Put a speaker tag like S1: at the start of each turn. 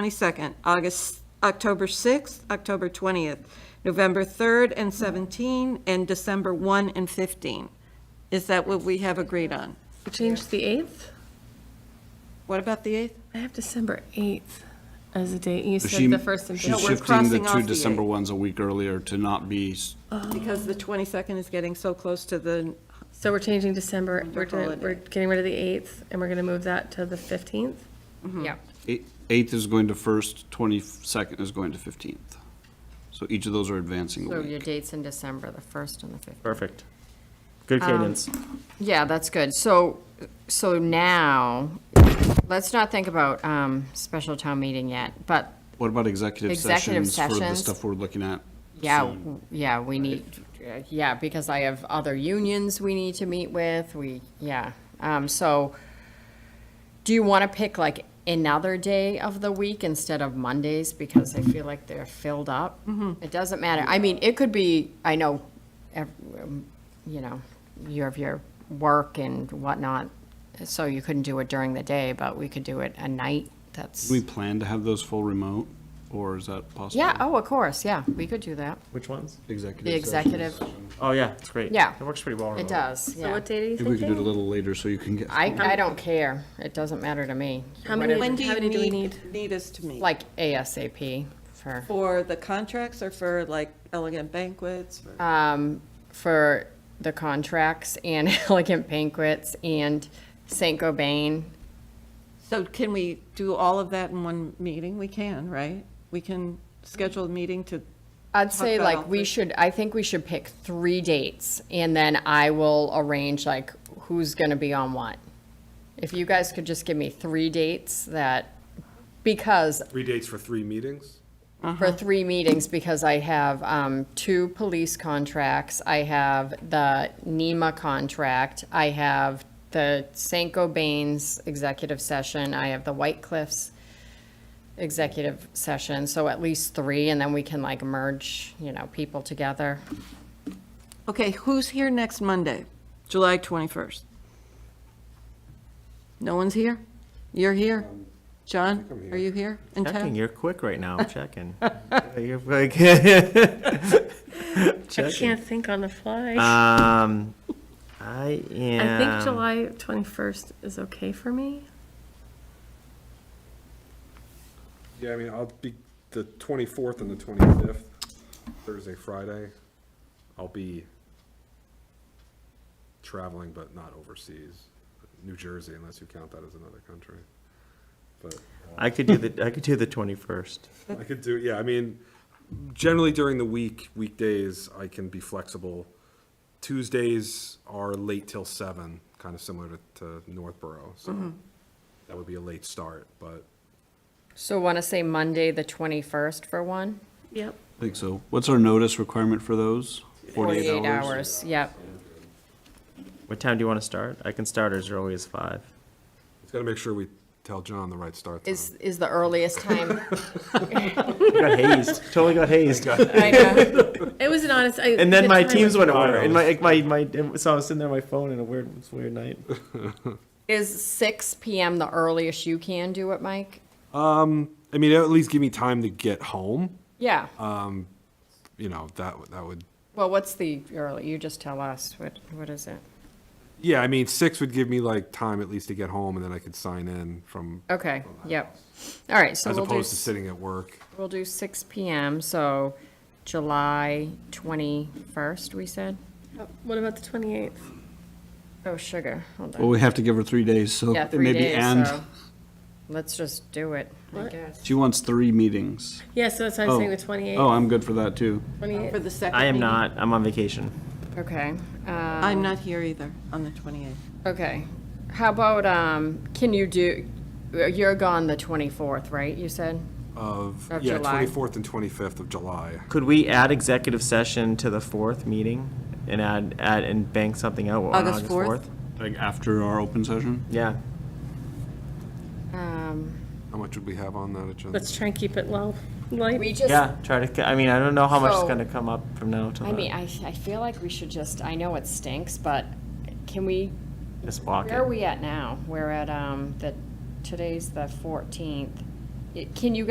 S1: 22nd, August, October 6th, October 20th, November 3rd and 17, and December 1 and 15. Is that what we have agreed on?
S2: We changed the 8th?
S1: What about the 8th?
S2: I have December 8th as a date. You
S3: So
S2: said
S3: she-
S2: the first and
S1: No,
S3: She's
S1: we're
S2: fifth.
S3: shifting the
S1: crossing
S3: two
S1: off the
S3: December
S1: eight.
S3: ones a week earlier to not be, s-
S1: Because the 22nd is getting so close to the,
S2: So we're changing December, we're
S1: Wonderful
S2: doing, we're getting rid of the 8th and we're going to move that to the 15th?
S4: Yeah,
S3: eight- e, eighth is going to first, twenty-second is going to fifteenth. So each of those are advancing a
S4: so your
S3: week.
S4: date's in December, the 1st and the 5th.
S5: Perfect. Good cadence.
S4: Yeah, that's good. So, so now, let's not think about um, special town meeting yet, but,
S3: What about executive
S4: Executive
S3: sessions for the
S4: sessions.
S3: stuff we're looking at?
S4: yeah,
S3: soon?
S4: w- yeah, we need, uh, yeah, because I have other unions we need to meet with, we, yeah. Um, So, do you want to pick like another day of the week instead of Mondays, because I feel like they're filled up? It doesn't matter. I mean, it could be, I know, ev- um, you know, you have your work and whatnot, so you couldn't do it during the day, but we could do it at night, that's,
S3: Do we plan to have those full remote, or is that possible?
S4: yeah, oh, of course, yeah, we could do that.
S5: Which ones?
S3: Executive
S4: The executive,
S5: Oh, yeah, it's great.
S4: Yeah.
S5: It works pretty well.
S4: it
S5: remote.
S4: does,
S2: So
S4: yeah.
S2: what date are you
S3: Maybe we could do it a
S2: thinking?
S3: little later so you can get.
S4: I, I don't care, it doesn't matter to me,
S2: How
S1: when
S2: many,
S1: do
S2: how
S1: you
S2: many do we
S1: need,
S2: need?
S1: need us to meet?
S4: like ASAP for,
S1: For the contracts or for like elegant banquets? for-
S4: um, for the contracts and elegant banquets and Saint Gobain.
S1: So can we do all of that in one meeting? We can, right? We can schedule a meeting to,
S4: I'd
S1: Talk
S4: say
S1: about all
S4: like we
S1: three.
S4: should, I think we should pick three dates and then I will arrange like who's gonna be on what. If you guys could just give me three dates that, because
S6: Three dates for three meetings?
S4: for three meetings because I have um, two police contracts, I have the NEMA contract, I have the St. Gobain's executive session, I have the White Cliffs executive session, so at least three, and then we can like merge, you know, people together.
S1: okay, who's here next Monday, July 21st? No one's here? You're here? John, are you Um, here in
S5: Checking,
S1: town?
S5: you're quick right now, checking. You're like-
S2: I can't think on the
S3: Uh,
S2: fly.
S5: Um, I
S2: I
S5: am.
S2: think July 21st is okay for me.
S6: Yeah, I mean, I'll be the 24th and the 25th, Thursday, Friday. I'll be traveling, but not overseas. New Jersey, unless you count that as another country. But
S5: I could do the, I could do the twenty-first.
S6: I could do, yeah, I mean, generally during the week, weekdays, I can be flexible. Tuesdays are late till seven, kind of similar to, to Northborough, so that would be a late start, but
S4: So want to say Monday, the 21st for one?
S2: Yep.
S3: I think so. What's our notice requirement for those?
S4: hours, yep.
S5: What time do you want to start? I can start as early as five.
S6: Just gotta make sure we tell John the right start time.
S4: Is, is the earliest time.
S5: Got hazed, totally got hazed.
S4: I know.
S2: It was an honest, I.
S5: And then
S2: the
S5: my
S2: time
S5: teams
S2: was-
S5: went over, and my, my, my, so I was sitting there on my phone in a weird, it's a weird night.
S4: Is 6 PM the earliest you can do it, Mike?
S6: I mean, at least give me time to get home,
S4: Yeah.
S6: you know, that, would- that would,
S4: Well, what's the early, you just tell us, what, what is it?
S6: yeah, I mean, six would give me like time at least to get home and then I could sign in from,
S4: Okay, yep. All right, so
S6: as
S4: we'll do,
S6: opposed to
S4: s-
S6: sitting at work.
S4: we'll do six PM, so July twenty-first, we said?
S2: What about the 28th?
S4: Oh, sugar, hold
S3: Well,
S4: on.
S3: we have to give her three days, so
S4: Yeah,
S3: it
S4: three
S3: may be and.
S4: days, so let's just do it, I
S2: What?
S4: guess.
S3: She wants three meetings.
S2: Yeah, so that's why I was saying the
S3: Oh.
S2: 28th.
S3: Oh, I'm good for that, too.
S2: 28th.
S1: For the second
S5: I am
S1: meeting?
S5: not, I'm on vacation.
S4: Okay, uh,
S1: I'm not here either on the 28th.
S4: okay. How about, um, can you do, uh, you're gone the twenty-fourth, right, you said?
S6: Of,
S4: Of
S6: yeah,
S4: July.
S6: twenty-fourth and twenty-fifth of July.
S5: Could we add executive session to the fourth meeting and add, add and bank something out on
S1: August
S5: August
S1: 4th?
S5: fourth?
S3: Like after our open session?
S5: Yeah.
S4: Um,
S6: How much would we have on that agenda?
S2: Let's try and keep it low, light.
S4: we just,
S5: Yeah, try to, I mean, I don't know how much is
S4: So-
S5: gonna come up from now till
S4: I mean,
S5: then.
S4: I, I feel like we should just, I know it stinks, but can we,
S5: Just block
S4: where are
S5: it.
S4: we at now? We're at, um, the, today's the fourteenth. Can you